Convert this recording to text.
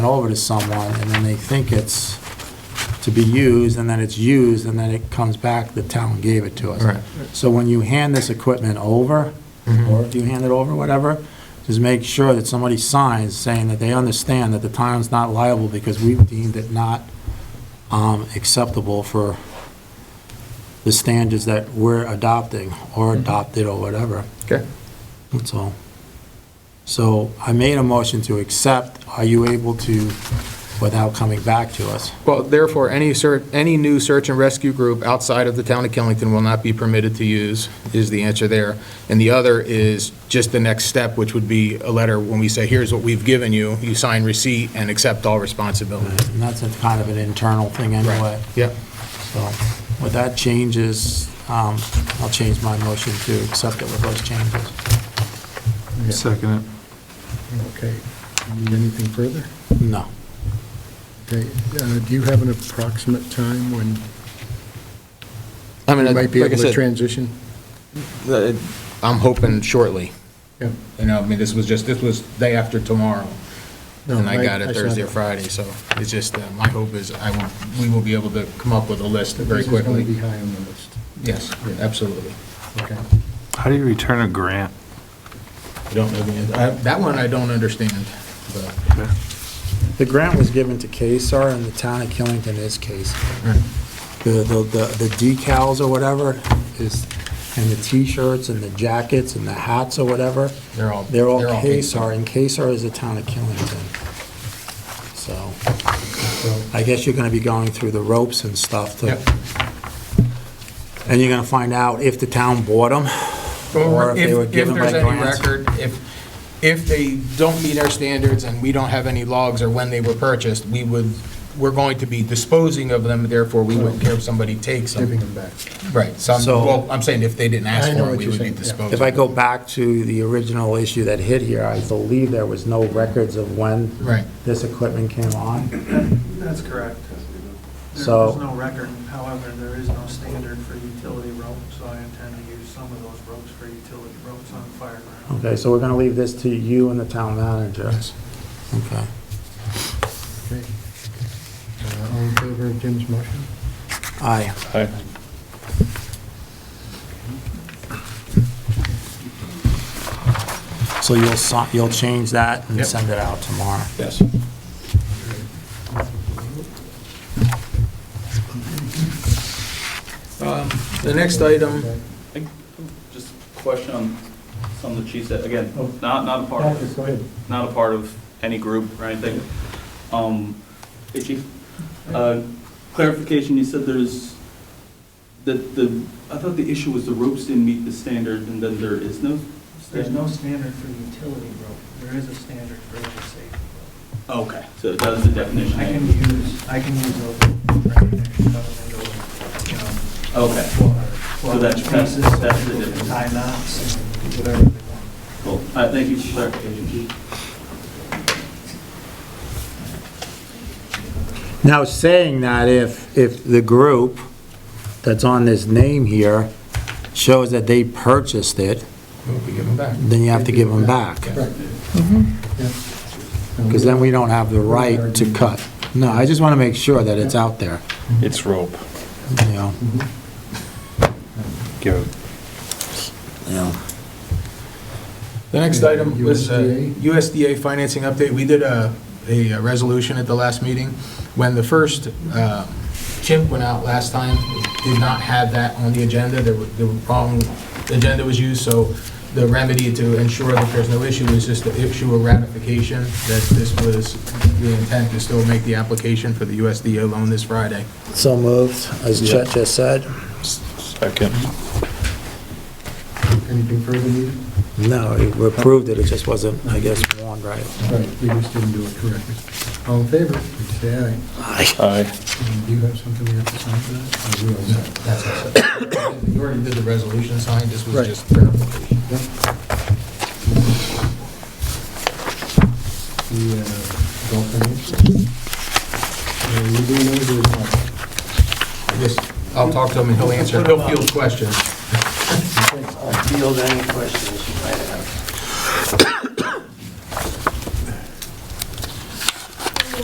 it over to someone, and then they think it's to be used, and then it's used, and then it comes back, the town gave it to Right. Mm-hmm. us. So when you hand this equipment over, or if you hand it over, whatever, just make sure that somebody signs saying that they understand that the town's not liable because we've deemed it not um, acceptable for the standards that we're adopting, or adopted, or whatever. Okay. That's all. So I made a motion to accept. Are you able to, without coming back to us? Well, therefore, any search, any new search and rescue group outside of the town of Killington will not be permitted to use, is the answer there. And the other is just the next step, which would be a letter when we say, here's what we've given you, you sign receipt and accept all responsibility. And that's a kind of an internal thing anyway. Yep. So with that changes, um, I'll change my motion to accept it with those changes. Second it. Okay. Need anything further? No. Okay. uh, Do you have an approximate time when I mean, you might be like I able to said, transition? uh, I'm hoping shortly. Yeah. You know, I mean, this was just, this was day after tomorrow, No, and I got it saw Thursday or that. Friday, so it's just, uh, my hope is I will, we will be able to come up with a list very This is going to quickly. be high on the list. Yes, absolutely. Okay. How do you return a grant? I don't know the, end- I- that one I don't understand, but. The grant was given to KSAR and the town of Killington is KSAR. The, the, the- the decals or whatever is, and the t-shirts and the jackets and the hats or whatever, They're all. They're all case KSAR, and KSAR is the town of Killington. So I guess you're going to be going through the ropes and stuff to, Yep. and you're going to find out if the town bought them, or if they were given by grants. If there's any record, if, if they don't meet our standards and we don't have any logs or when they were purchased, we would, we're going to be disposing of them, therefore we wouldn't care if somebody takes Giving them. them back. Right, so, I'm- So- well, I'm saying if they didn't ask I for know them, what we you're would be saying, yeah. disposing. If I go back to the original issue that hit here, I believe there was no records of when Right. this equipment came on. That's correct. So- There's no record, however, there is no standard for utility rope, so I intend to use some of those ropes for utility ropes on fire ground. Okay, so we're going to leave this to you and the town manager. Okay. Okay. Uh, All in favor of Jim's motion? Aye. So you'll, si- you'll change that and Yep. send it out tomorrow. Yes. The next item, Just a question on some of the chiefs that, again, not, not a part of, Go ahead. not a part of any group or anything. Um, hey, chief, uh, clarification, you said there's, that the, I thought the issue was the ropes didn't meet the standard and then there is no? There's standard? no standard for utility rope, there is a standard for the safety Okay, so that's the rope. definition. I can use, I can use rope. right there, cover Okay. them over, So you know, that's- that's- um, pieces, that's the people can difference. Tie knots, and whatever they want. Cool. All right, thank you for clarification, chief. Now, saying that if, if the group that's on this name here shows that they purchased it, we give them back. then you have to give them back. Mm-hmm. Because then we don't have the right to cut. No, I just want to make sure that it's out there, It's rope. you know? Give Yeah. The next item was uh, USDA? USDA financing update. We did a, a resolution at the last meeting. When the first uh, chimp went out last time, it did not have that on the agenda. There were- The wrong agenda was used, so the remedy to ensure that there's no issue is just to issue a ratification that this was, the intent to still make the application for the USDA loan this Friday. So moved, as Chet just said. Second. Anything further needed? No, we approved it, it just wasn't, I guess, warned right. Right, we just didn't do it correctly. All in favor, please say aye. Aye. And Do you have something we have to sign for that? Or we all set? That's it. You already did the resolution signed, this was Right. just verification. The uh, golf course? Are you doing those or not? Yes, I'll talk to him and he'll answer, he'll field questions. I'll field any questions you might have.